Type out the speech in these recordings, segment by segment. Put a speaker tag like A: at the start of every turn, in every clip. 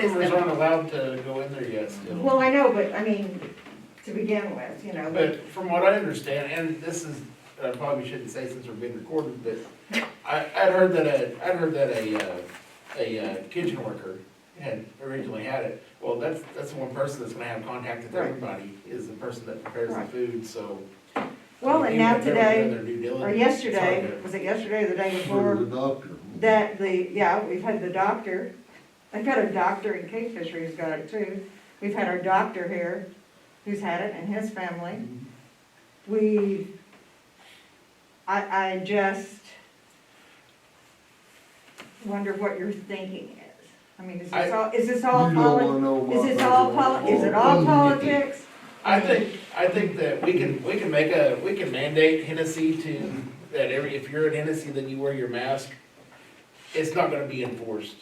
A: Neighbors aren't allowed to go in there yet still.
B: Well, I know, but I mean, to begin with, you know, but
A: But from what I understand, and this is, I probably shouldn't say since we're being recorded, but I, I'd heard that a, I'd heard that a, uh, a uh, kitchen worker had originally had it. Well, that's, that's the one person that's gonna have contact with
B: Right.
A: everybody, is the person that prepares the
B: Right.
A: food, so.
B: Well, and now today, or
A: or
B: yesterday, was it yesterday or the day
C: For
B: before?
C: the doctor.
B: That the, yeah, we've had the doctor, I've got a doctor in Kingfisher who's got it too. We've had our doctor here who's had it and his family. We, I, I just wonder what your thinking is. I mean, is this
A: I-
B: all, is this
C: You
B: all,
C: don't
B: poli-
C: wanna know
B: is
C: what
B: this
C: they
B: all,
C: want.
B: poli- is it all politics?
A: I think, I think that we can, we can make a, we can mandate Hennessy to, that every, if you're in Hennessy, then you wear your mask. It's not gonna be enforced.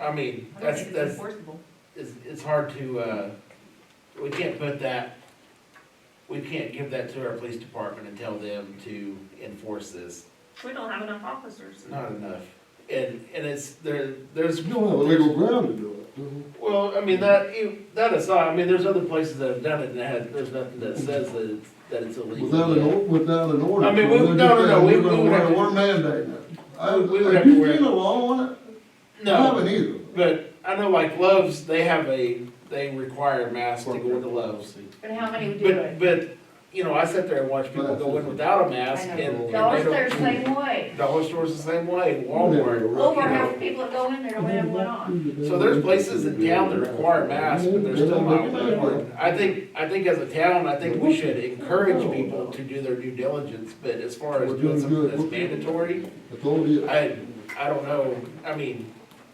A: I mean,
D: I don't
A: that's,
D: think it's
A: that's,
D: enforceable.
A: it's, it's hard to, uh, we can't put that, we can't give that to our police department and tell them to enforce this.
D: We don't have enough officers.
A: Not enough. And, and it's, there, there's.
C: You don't have legal ground to do it. do
A: Well, I mean, that, you- that aside, I mean, there's other places that have done it and had, there's nothing that says that, it's- that it's
C: you?
A: illegal.
C: Without an,
A: yet.
C: or- without an order.
A: I mean, we-
C: We're
A: no, no, no, we-
C: just saying we're gonna
A: we would
C: wear-
A: have to-
C: We're mandating it. I,
A: We would have
C: if
A: to
C: you
A: wear-
C: feel a law on it, I
A: No,
C: haven't either.
A: but I know like Love's, they have a, they require masks to go into Love's.
E: But how many would do
A: But,
E: it?
A: but, you know, I sit there and watch people go in without a mask and. and they
E: Dollar
A: don't-
E: Store's the same way.
A: Dollar Store's the same way, Walmart.
E: Over half the people that go in there don't have one on.
A: So there's places in town that require masks, but they're still not wearing one. I think, I think as a town, I think we should encourage people to do their due diligence, but as far as doing something that's mandatory,
C: It's only.
A: I, I don't know, I mean,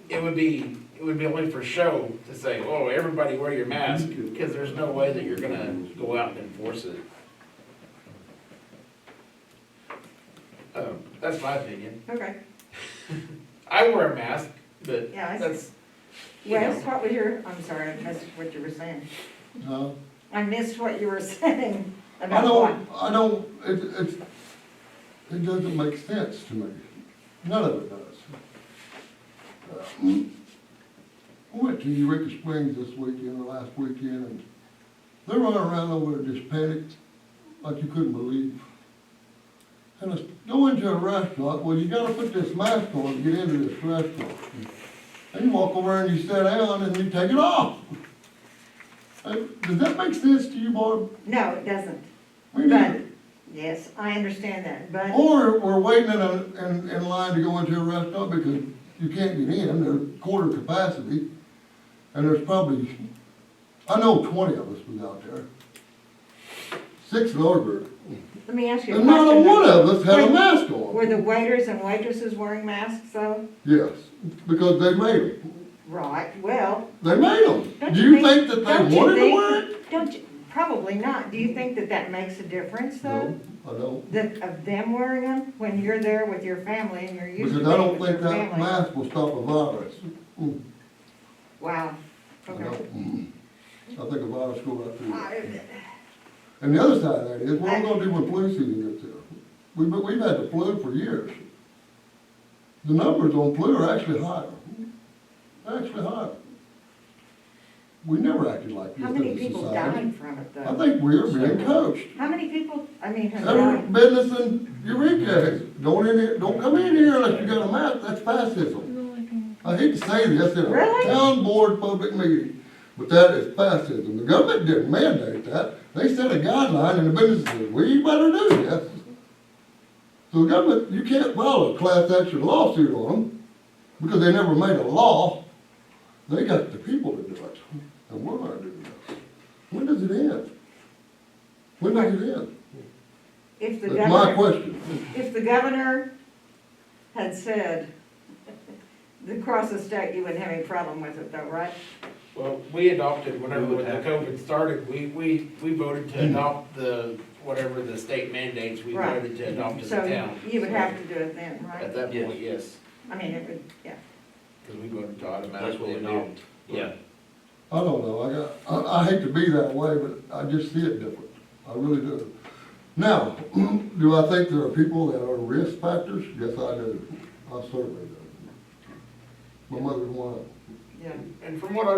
A: it would be, it would be only for show to say, oh, everybody wear your mask, because there's no way that you're gonna go out and enforce it. Um, that's my opinion.
B: Okay,
A: I wear a mask, but
B: yeah, I see.
A: that's, you know,
B: Wes, what was your, I'm sorry, I missed what you were saying.
C: Huh?
B: I missed what you were saying
C: I
B: about what?
C: don't, I don't, it, it, it doesn't make sense to me. None of it does. Um, I went to Eureka Springs this weekend, or last weekend, and they're running around over there just panicked, like you couldn't believe. And I s- go into a restaurant, well, you gotta put this mask on to get into this restaurant. And you walk over and you sit down and you take it off. Uh, Does that make sense to you, Barb?
B: No, it doesn't.
C: We need
B: Right.
C: it.
B: Yes, I understand that, but,
C: Or we're waiting in a, in, in line to go into a restaurant because you can't get in, they're quarter capacity. And there's probably, I know twenty of us was out there. Six in our group.
B: let me ask you a
C: And
B: question.
C: not a one
B: though.
C: of us had a
B: Were-
C: mask
B: Were
C: on.
B: the waiters and waitresses wearing masks though?
C: Yes, because they made them.
B: Right, well,
C: They made them.
B: don't
C: Do
B: you
C: you
B: think?
C: think that
B: don't
C: they
B: you
C: wanted to
B: think-
C: wear it?
B: Don't you, probably not. Do you think that that makes a difference though?
C: No, I don't.
B: That of them wearing them when you're there with your family and you're used to
C: Because
B: being
C: I don't
B: with your
C: think that
B: family?
C: mask will stop a virus. Mm,
B: Wow,
C: I
B: okay.
C: don't. Mm. I think a virus go right through. it.
B: I-
C: And the other side of that is, what are we gonna do when flu season gets here? We've, been- we've had the flu for years. The numbers on flu are actually higher, actually higher. We never acted like this
B: How
C: as
B: many
C: a
B: people
C: society.
B: died from it though?
C: I think we're being coached.
B: How many people, I mean, have
C: Every
B: died?
C: business in Eureka, is, don't in here, don't come in here unless you got a mask, that's fascism. I hate to say this in a
B: Oh, Really?
C: town board public meeting, but that is fascism. The government didn't mandate that. They set a guideline and the business said, we better do this. So the government, you can't file a class action lawsuit on them because they never made a law. They got the people to do it, and we're not doing it. When does it end? When does it end?
B: If the
C: That's
B: governor.
C: my question.
B: If the governor had said, across the state, you wouldn't have any problem with it though, right?
A: well, we adopted, whenever
F: We
A: when
F: would
A: the
F: have- Mm.
A: COVID started, we, we, we voted to adopt the, whatever the state mandates, we
B: Right.
A: voted to adopt as a
B: So
A: town.
B: you would have to do it then,
A: At
B: right?
A: that
F: Yes.
A: point, yes,
B: I mean, it would, yeah.
A: because we voted to
F: That's what
A: automatically
F: we
A: adopt.
F: do. Yeah.
C: I don't know, I got, I, I hate to be that way, but I just see it different, I really do. Now, do I think there are people that are risk factors? Yes, I do, I certainly do. My mother's one of them.
B: Yeah.
A: And from what I